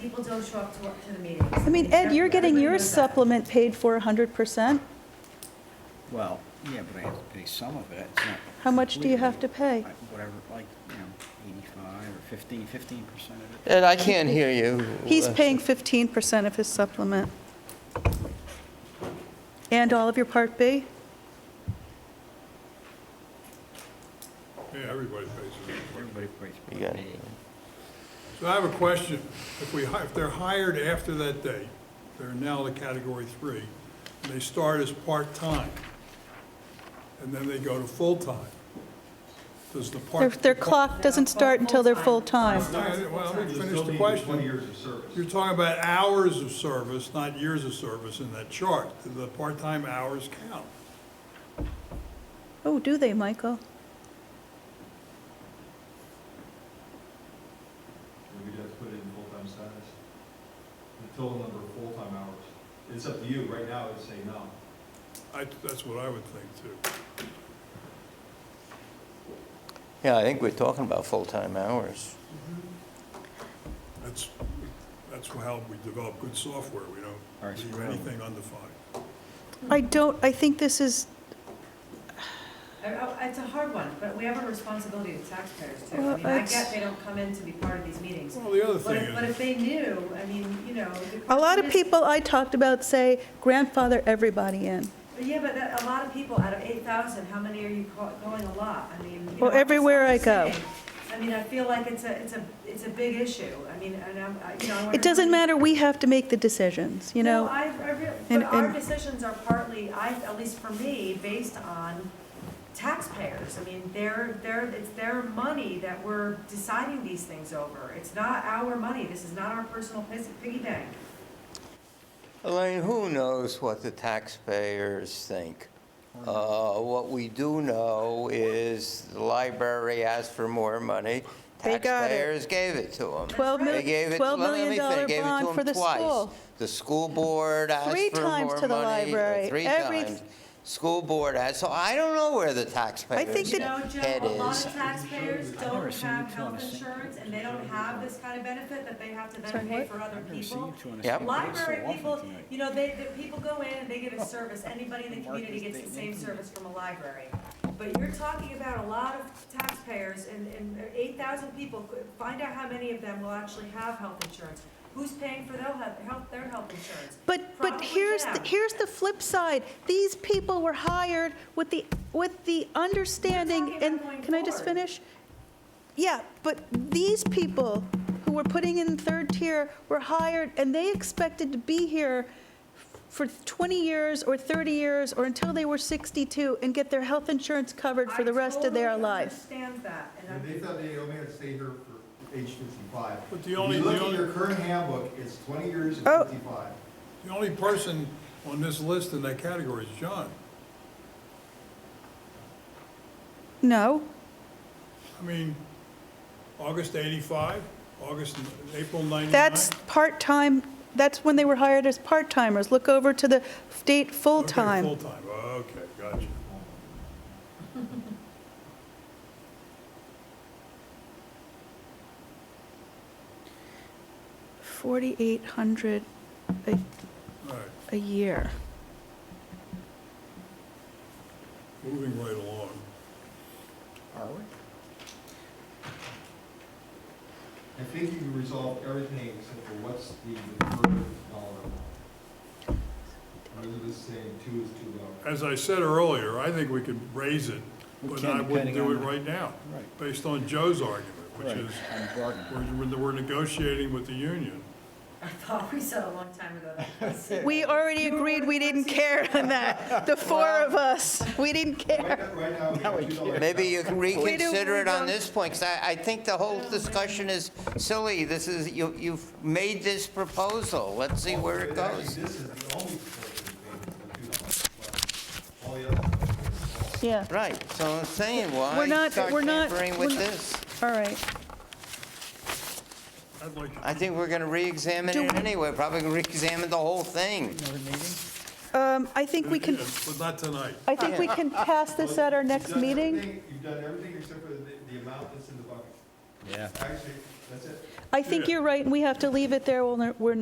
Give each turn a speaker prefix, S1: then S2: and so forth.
S1: people don't show up to, work- to the meetings.
S2: I mean, Ed, you're getting
S1: Everybody
S2: your
S1: knows that.
S2: supplement paid for 100%.
S3: Well, yeah, but I have to pay some of it. It's not
S2: How much do you have to
S3: completely,
S2: pay?
S3: like, Whatever, like, you know, 85 or 15, 15% of it.
S4: Ed, I can't hear you. Uh,
S2: He's paying 15% of his supplement. And all of your Part B?
S5: Yeah, everybody pays it.
S3: Everybody pays.
S4: You got
S3: Part
S4: it.
S3: B.
S5: So I have a question. If we, hi- if they're hired after that day, they're now the category three, and they start as part-time, and then they go to full-time, does the
S2: Their,
S5: part?
S2: their clock doesn't start until they're full-time.
S5: Yeah, Well, let me
S6: There's
S5: finish
S6: still
S5: the
S6: be Twenty
S5: question.
S6: years of service.
S5: You're talking about hours of service, not years of service in that chart. Do the part-time hours count?
S2: Oh, do they, Michael?
S6: We just put it in full-time status. The total number of full-time hours. It's up to you. Right now, I would say no.
S5: I, that's what I would think too.
S4: Yeah, I think we're talking about full-time hours.
S5: That's, that's how we develop good software. We
S3: Our
S5: don't leave
S3: scrum.
S5: anything undefined.
S1: Mm-hmm.
S2: I don't, I think this is,
S1: I- I- It's a hard one, but we have a responsibility to taxpayers too. I
S2: Well,
S1: mean, I
S2: it's-
S1: get they don't come in to be part of these meetings.
S5: Well, the other
S1: But
S5: thing
S1: if, but
S5: is,
S1: if they knew, I mean, you know. the
S2: a lot
S1: question
S2: of
S1: is-
S2: people I talked about say grandfather everybody in.
S1: But Yeah, but that, a lot of people, out of eight thousand, how many are you ca- going a lot? I mean. you
S2: Well,
S1: know, I'm
S2: everywhere I
S1: just
S2: go.
S1: saying. I mean, I feel like it's a, it's a, it's a big issue. I mean, and I'm, I- you know, I
S2: It
S1: wanna-
S2: doesn't matter, we have to make the decisions, you
S1: No,
S2: know?
S1: I, I real, but
S2: and-
S1: our
S2: and-
S1: decisions are partly, I, at least for me, based on taxpayers. I mean, they're, they're, it's their money that we're deciding these things over. It's not our money. This is not our personal pis- piggy bank.
S4: Elaine, who knows what the taxpayers think? Uh, What we do know is the library asked for more money.
S2: They got it.
S4: Taxpayers gave it to them.
S2: Twelve mil-
S4: They gave it,
S2: $12
S4: let me
S2: million
S4: finish, they gave it
S2: bond
S4: to
S2: for the
S4: them twice.
S2: school.
S4: The school board asked for more
S2: Three
S4: money.
S2: times to the library.
S4: Three
S2: Every-
S4: times. School board asked, so I don't know where the taxpayers'
S2: that-
S1: You know, Joe,
S4: head
S1: a lot
S4: is.
S1: of taxpayers
S3: never
S1: don't
S3: seen
S1: have
S3: you two on
S1: health
S3: the same-
S1: insurance, and they don't have this kind of benefit that they have to
S2: Sorry,
S1: then pay
S2: what?
S1: for other
S3: I've never seen
S1: people.
S3: you two on the
S4: Yep.
S3: same page so
S1: Library
S3: often
S1: people,
S3: tonight.
S1: you know, they, the people go in and they get a service, anybody in the
S3: Mark
S1: community
S3: is
S1: gets the same
S3: dating him.
S1: service from a library. But you're talking about a lot of taxpayers and, and eight thousand people, find out how many of them will actually have health insurance. Who's paying for their health, health- their health insurance?
S2: But, but
S1: Probably
S2: here's, the-
S1: them.
S2: here's the flip side. These people were hired with the, with the understanding,
S1: talking
S2: and,
S1: about going
S2: can I just
S1: forward.
S2: finish? Yeah, but these people who were putting in third tier were hired, and they expected to be here for 20 years or 30 years, or until they were 62, and get their health insurance covered for the rest of their life.
S1: I totally understand that, and I'm.
S6: And They thought they only had to stay here for age fifty-five.
S5: But the only-
S6: If you
S5: the
S6: look at
S5: only-
S6: your current handbook, it's twenty years and
S2: Oh.
S6: fifty-five.
S5: the only person on this list in that category is John.
S2: No?
S5: I mean, August 85, August, April 99.
S2: That's part-time, that's when they were hired as part-timers. Look over to the date
S5: Okay,
S2: full-time.
S5: Full-time, okay, gotcha.
S2: Forty-eight hundred a,
S5: All right,
S2: a year.
S5: moving right along.
S3: Are we?
S6: I think you can resolve everything except for what's the deferred dollar amount. Rather than saying two is too low.
S5: As I said earlier, I think we could raise it,
S3: We
S5: but
S3: can,
S5: I wouldn't
S3: depending
S5: do it
S3: on-
S5: right now,
S3: Right.
S5: based on Joe's argument, which
S3: Right,
S5: is,
S3: I'm bargaining.
S5: we're, we're negotiating with the union.
S1: I thought we said a long time ago that was-
S2: We already
S1: You were
S2: agreed we
S1: the
S2: didn't
S1: first-
S2: care on that, the four of us, we didn't
S6: Right
S2: care.
S6: now- Right now, we
S3: Now we
S6: have two dollars.
S4: Maybe you can reconsider it
S2: don't-
S4: on this point, because I, I think the whole discussion is silly. This is, you, you've made this proposal, let's see where it
S6: But actually,
S4: goes.
S6: This is the only proposal we made, it's the $2. All the other proposals are small.
S2: Yeah,
S4: Right, so I'm saying,
S2: We're
S4: why
S2: not-
S4: start
S2: we're not-
S4: tampering
S2: we're
S4: with
S2: not-
S4: this?
S2: all right.
S5: I'd like,
S4: I think we're gonna re-examine
S2: Do-
S4: it anyway, probably gonna re-examine the whole thing.
S3: Another meeting?
S2: Um, I think we can,
S5: but not tonight.
S2: I think we can pass this at our next
S6: You've done
S2: meeting.
S6: everything- You've done everything except for the, the amount that's in the bucket.
S3: Yeah.
S6: Actually, that's it.
S2: I think
S5: Yeah.
S2: you're right, and we have to leave it there, we'll, ne- we're